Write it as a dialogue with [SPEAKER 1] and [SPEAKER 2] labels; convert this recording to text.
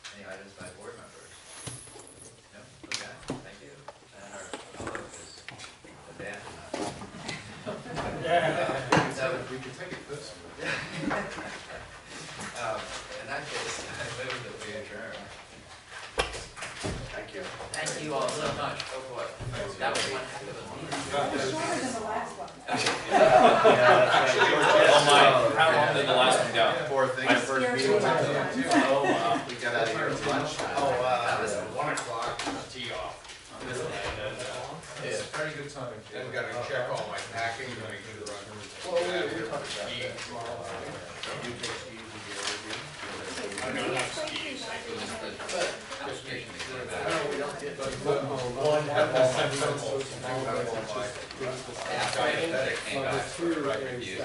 [SPEAKER 1] any items by board members? No? Okay, thank you. And our public is abandoned. So,
[SPEAKER 2] We can take it personally.
[SPEAKER 1] um, in that case, I move that we adjourn.
[SPEAKER 2] Thank you.
[SPEAKER 1] Thank you all so much. Oh, boy. That was one heck of a meeting.
[SPEAKER 3] Shorter than the last one.
[SPEAKER 4] Oh my, how long did the last one go?
[SPEAKER 2] Poor thing, the first meeting. went to-
[SPEAKER 4] Oh, wow.
[SPEAKER 2] We got out of here at lunchtime. Oh,
[SPEAKER 1] That was one o'clock.
[SPEAKER 4] Tee off.
[SPEAKER 2] It's very good timing.
[SPEAKER 5] I've got to check all my packing to make sure
[SPEAKER 2] Well, we,
[SPEAKER 5] I'm.
[SPEAKER 2] we talked about that.
[SPEAKER 5] You take Steve and
[SPEAKER 1] Application is good about it.
[SPEAKER 2] No, we don't get. One, have all my principles and all my
[SPEAKER 5] get with you.
[SPEAKER 2] principles.
[SPEAKER 1] Yeah, I think that it came back for a record review.